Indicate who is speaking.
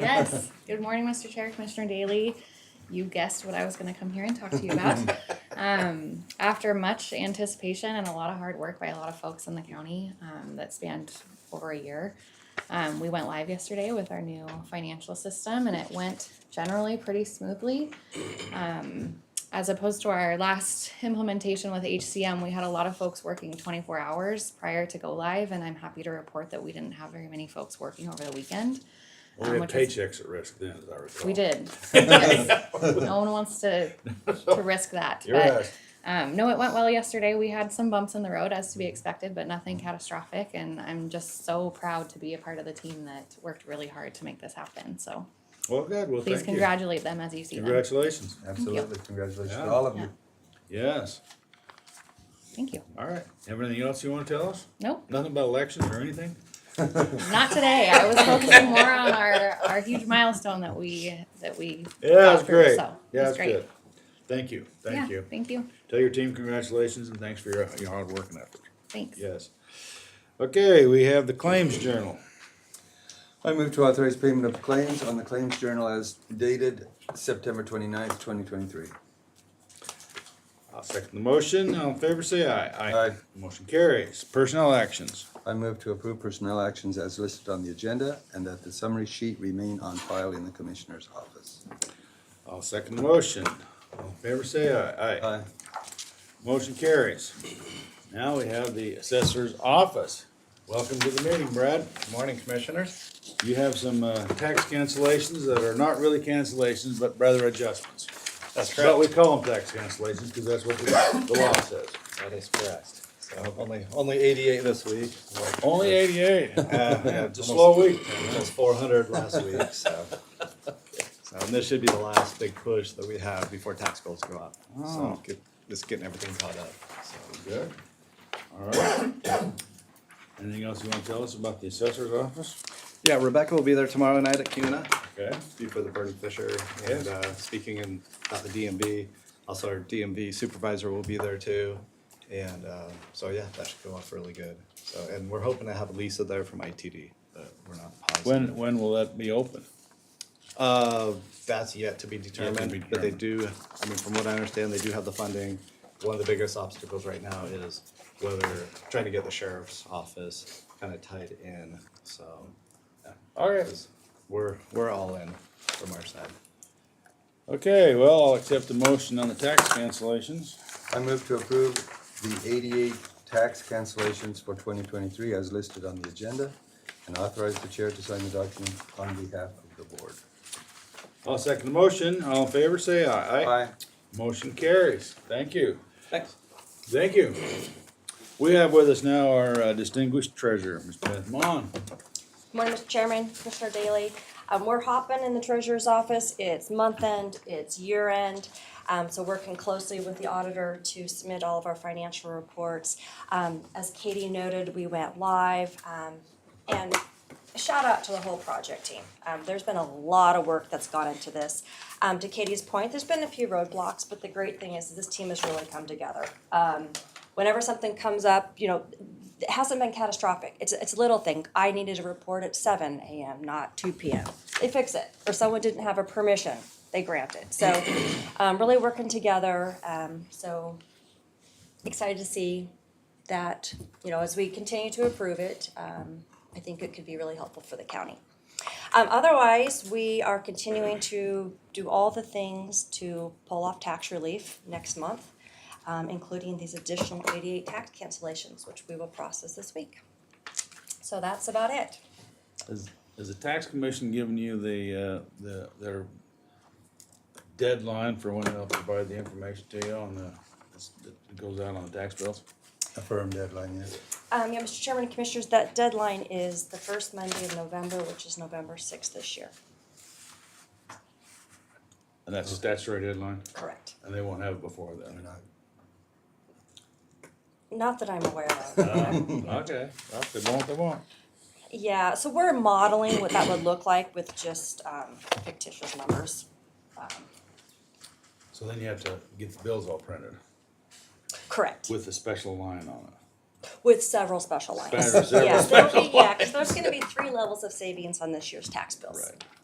Speaker 1: Yes. Good morning, Mr. Chair, Commissioner Daly. You guessed what I was going to come here and talk to you about. um, after much anticipation and a lot of hard work by a lot of folks in the county um, that spanned over a year, um, we went live yesterday with our new financial system, and it went generally pretty smoothly. Um, as opposed to our last implementation with HCM, we had a lot of folks working 24 hours prior to go live, and I'm happy to report that we didn't have very many folks working over the weekend.
Speaker 2: Well, we
Speaker 1: um,
Speaker 2: had
Speaker 1: which is-
Speaker 2: paychecks at risk then, as I recall.
Speaker 1: We did. Yes. no one wants to to risk that.
Speaker 2: You're
Speaker 1: but
Speaker 2: right.
Speaker 1: um, no, it went well yesterday. We had some bumps in the road as to be expected, but nothing catastrophic. And I'm just so proud to be a part of the team that worked really hard to make this happen. So
Speaker 2: Well, good. Well,
Speaker 1: please
Speaker 2: thank you.
Speaker 1: congratulate them as you see them.
Speaker 2: Congratulations.
Speaker 3: Absolutely. Congratulations
Speaker 2: Yeah.
Speaker 3: to all of you.
Speaker 2: Yes.
Speaker 1: Thank you.
Speaker 2: All right. Have anything else you want to tell us?
Speaker 1: Nope,
Speaker 2: Nothing about elections or anything?
Speaker 1: not today. I was focusing more on our, our huge milestone that we that we
Speaker 2: Yeah,
Speaker 1: got
Speaker 2: it's
Speaker 1: through,
Speaker 2: great.
Speaker 1: So
Speaker 2: Yeah,
Speaker 1: it was
Speaker 2: it's
Speaker 1: great.
Speaker 2: good. Thank you. Thank
Speaker 1: yeah,
Speaker 2: you.
Speaker 1: Thank you.
Speaker 2: Tell your team congratulations and thanks for your, your hard work and effort.
Speaker 1: Thanks.
Speaker 2: Yes. Okay, we have the claims journal.
Speaker 3: I move to authorize payment of claims on the Claims Journal as dated September 29th, 2023.
Speaker 2: I'll second the motion. All in favor, say aye.
Speaker 3: Aye.
Speaker 2: Motion carries. Personnel actions.
Speaker 3: I move to approve personnel actions as listed on the agenda and that the summary sheet remain on file in the Commissioner's office.
Speaker 2: I'll second the motion. All in favor, say aye. Aye.
Speaker 3: Aye.
Speaker 2: Motion carries. Now we have the assessor's office. Welcome to the meeting, Brad.
Speaker 4: Morning, Commissioners.
Speaker 2: You have some uh, tax cancellations that are not really cancellations, but rather adjustments.
Speaker 4: That's
Speaker 2: But we
Speaker 4: correct.
Speaker 2: call them tax cancellations because that's what the the law says.
Speaker 4: That is correct. So only, only eighty-eight this week. like,
Speaker 2: Only eighty-eight. Yeah, It's a
Speaker 4: almost-
Speaker 2: slow week.
Speaker 4: Almost four hundred last week, so. So, and this should be the last big push that we have before tax bills go up.
Speaker 2: Oh.
Speaker 4: So get- just getting everything caught up, so.
Speaker 2: Good. All right. Anything else you want to tell us about the assessor's office?
Speaker 4: Yeah, Rebecca will be there tomorrow night at CUNA.
Speaker 2: Okay.
Speaker 4: be for the Burton Fisher and uh, speaking in, at the DMV. Also, our DMV supervisor will be there too. And uh, so, yeah, that should go off really good. So, and we're hoping to have Lisa there from ITD, but we're not positive.
Speaker 2: When, when will that be open?
Speaker 4: Uh, that's yet to be
Speaker 2: be
Speaker 4: determined, but they
Speaker 2: determined.
Speaker 4: do, I mean, from what I understand, they do have the funding. One of the biggest obstacles right now is whether, trying to get the sheriff's office kind of tied in, so. yeah.
Speaker 2: All right.
Speaker 4: We're, we're all in from our side.
Speaker 2: Okay, well, I'll accept the motion on the tax cancellations.
Speaker 3: I move to approve the 88 tax cancellations for 2023 as listed on the agenda and authorize the chair to sign the document on behalf of the board.
Speaker 2: I'll second the motion. All in favor, say aye. Motion carries. Thank you.
Speaker 4: Thanks.
Speaker 2: Thank you. We have with us now our uh, distinguished treasurer, Ms. Beth Mon.
Speaker 5: Morning, Mr. Chairman, Commissioner Daly. Um, we're hopping in the treasurer's office. It's month end, it's year end. Um, so working closely with the auditor to submit all of our financial reports. Um, as Katie noted, we went live, um, and shout out to the whole project team. Um, there's been a lot of work that's gone into this. Um, to Katie's point, there's been a few roadblocks, but the great thing is this team has really come together. Um, whenever something comes up, you know, it hasn't been catastrophic. It's it's a little thing. I needed a report at seven a.m., not two p.m. They fix it, or someone didn't have a permission. They grant it. So, um, really working together. Um, so excited to see that you know as we continue to approve it. Um, I think it could be really helpful for the county. Um, otherwise, we are continuing to do all the things to pull off tax relief next month, um, including these additional eighty-eight tax cancellations, which we will process this week. So that's about it.
Speaker 2: Has has the tax commission given you the, uh, the, their deadline for when they'll provide the information to you on the, that goes out on the tax bills?
Speaker 3: A firm deadline, yes.
Speaker 5: Um, yeah, Mr. Chairman and Commissioners, that deadline is the first Monday of November, which is November sixth this year.
Speaker 2: And that's a statutory deadline,
Speaker 5: Correct.
Speaker 2: and they won't have it before
Speaker 3: Or
Speaker 2: then.
Speaker 3: not.
Speaker 5: Not that I'm aware of.
Speaker 2: Okay, well, if they won't, they won't.
Speaker 5: Yeah, so we're modeling what that would look like with just, um, fictitious numbers.
Speaker 2: So then you have to get the bills all printed
Speaker 5: Correct.
Speaker 2: with a special line on it.
Speaker 5: With several special lines.
Speaker 2: Several- several
Speaker 5: Yeah, there'll be- yeah, 'cause there's gonna be three levels of savings on this year's tax bills.
Speaker 2: Right.